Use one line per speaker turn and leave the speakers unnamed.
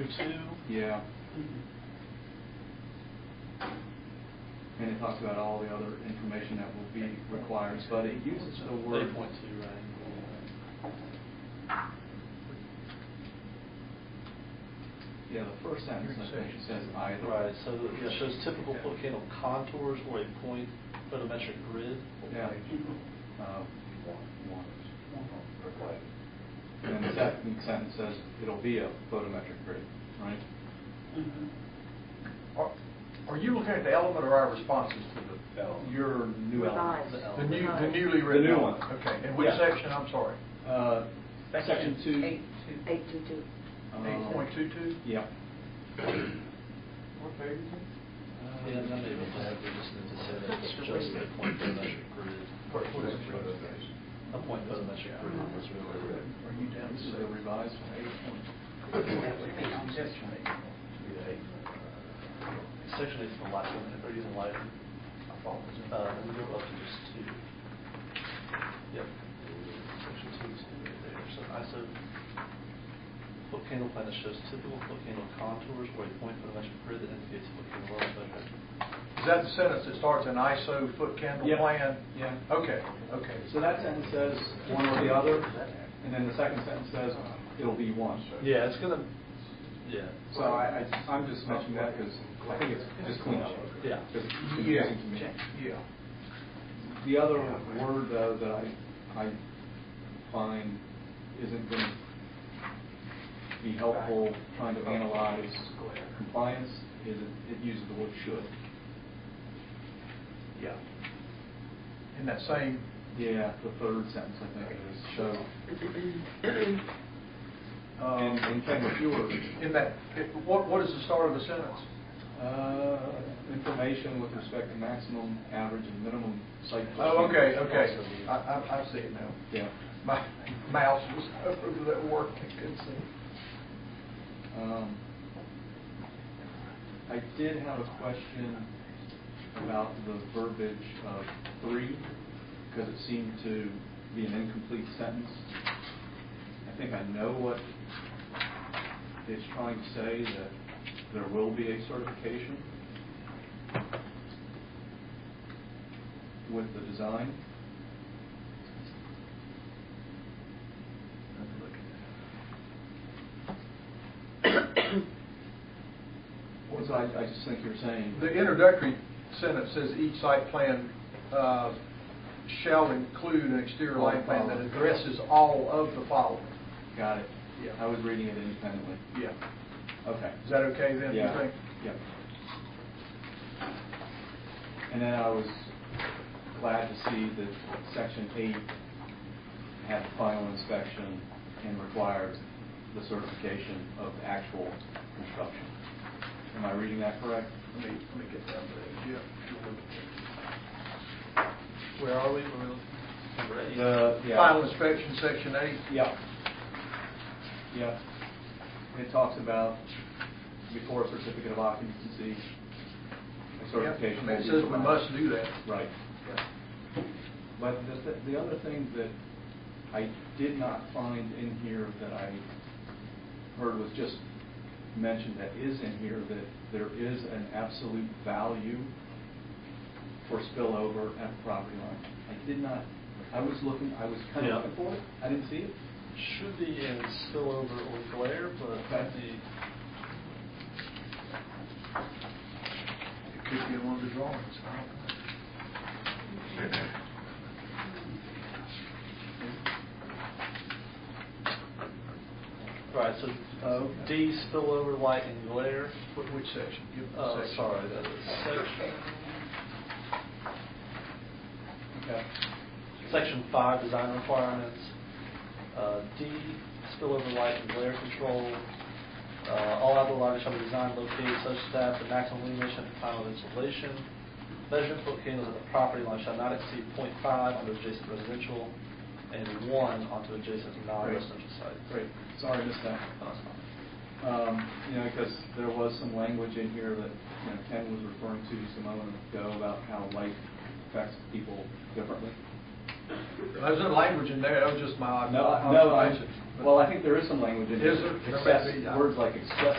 two-two.
Yeah. And it talks about all the other information that will be required, but it uses the word.
Eight point two, right?
Yeah, the first sentence, I think, says either.
Right, so, yeah, it shows typical volcano contours or a point photometric grid.
Yeah. Uh, And then the second sentence says it'll be a photometric grid, right?
Are are you looking at the element or our responses to
Element.
Your new element.
Revised.
the, the new, the
Revised.
newly written?
The new
element?
one.
Okay, in which
Yeah.
section, I'm sorry?
Uh, Section two.
Eight two.
Eight two two.
um,
8.22?
Yeah.
What page is it?
Yeah, I'm not able to have, we just need to say that it's just a point photometric grid.
What- what is
A
it?
point photometric grid is really.
Are you down
This is a
to
revised one.
That would be on this one.
Section eight's the light limit, they're using light, uh, we go up to just two. Yep. Section two is right there, so ISO volcano plan that shows typical volcano contours or a point photometric grid that indicates volcano level measure.
Is that the sentence that starts in ISO foot candle
Yeah.
plan?
Yeah.
Okay, okay.
So that sentence says one or the other, and then the second sentence says it'll be one.
Yeah, it's gonna, yeah.
So I, I- I'm just mentioning that because I think it's just clean up.
Yeah.
Because it's
Yeah,
confusing to me.
yeah.
The other word though that I, I find isn't going to be helpful trying to analyze compliance is it- it uses the word should.
Yeah. In that same,
Yeah, the third sentence I think it is, so, and,
um,
and can
in that, it- what, what is the start of the sentence?
Uh, information with respect to maximum, average, and minimum site.
Oh,
distance.
okay, okay. I, I, I see it now.
Yeah.
My mouse was over that work, I couldn't see.
Um, I did have a question about the verbiage of three, because it seemed to be an incomplete sentence. I think I know what it's trying to say, that there will be a certification with the design. So I, I just think you're saying.
The introductory sentence says each site plan uh, shall include an exterior lighting plan that addresses all of the following.
Got it.
Yeah.
I was reading it independently.
Yeah.
Okay.
Is that okay then? you
Yeah,
think?
yeah. And then I was glad to see that section eight had final inspection and requires the certification of actual construction. Am I reading that correct?
Let me, let me get down to that.
Where are we? Number eight.
The,
Yeah. Final inspection, section eight.
Yeah. Yeah. It talks about before a certificate of occupancy, a certification.
Yeah,
will
I mean, It
be
says we
provided.
must do that.
Right. But the, th- the other thing that I did not find in here that I heard was just mentioned that is in here, that there is an absolute value for spillover at the property line. I did not, I was looking, I was kind
Yeah.
of looking for it, I didn't see it.
Should be in spillover or glare, but
Okay.
the,
It could be in one of the drawings. I don't know.
all right, so uh, D, spillover, light, and glare.
Wh- Which section? Give me the
Oh,
section.
sorry, that is section,
Okay.
section five, design requirements. Uh, D, spillover, light, and glare control. Uh, All outdoor lighting shall be designed located such that the maximum illumination at the time of installation. Measurement for candles at the property line shall not exceed 0.5 onto adjacent residential and one onto adjacent non-residential site.
Great, sorry, I missed that.
No, that's fine.
Um, You know, because there was some language in here that, you know, Ken was referring to just a moment ago about how light affects people differently.
There's no language in there, that was just my
No,
my
I- no, I-
observation.
well, I think there is some language in here.
Is there?
Excess, words like excess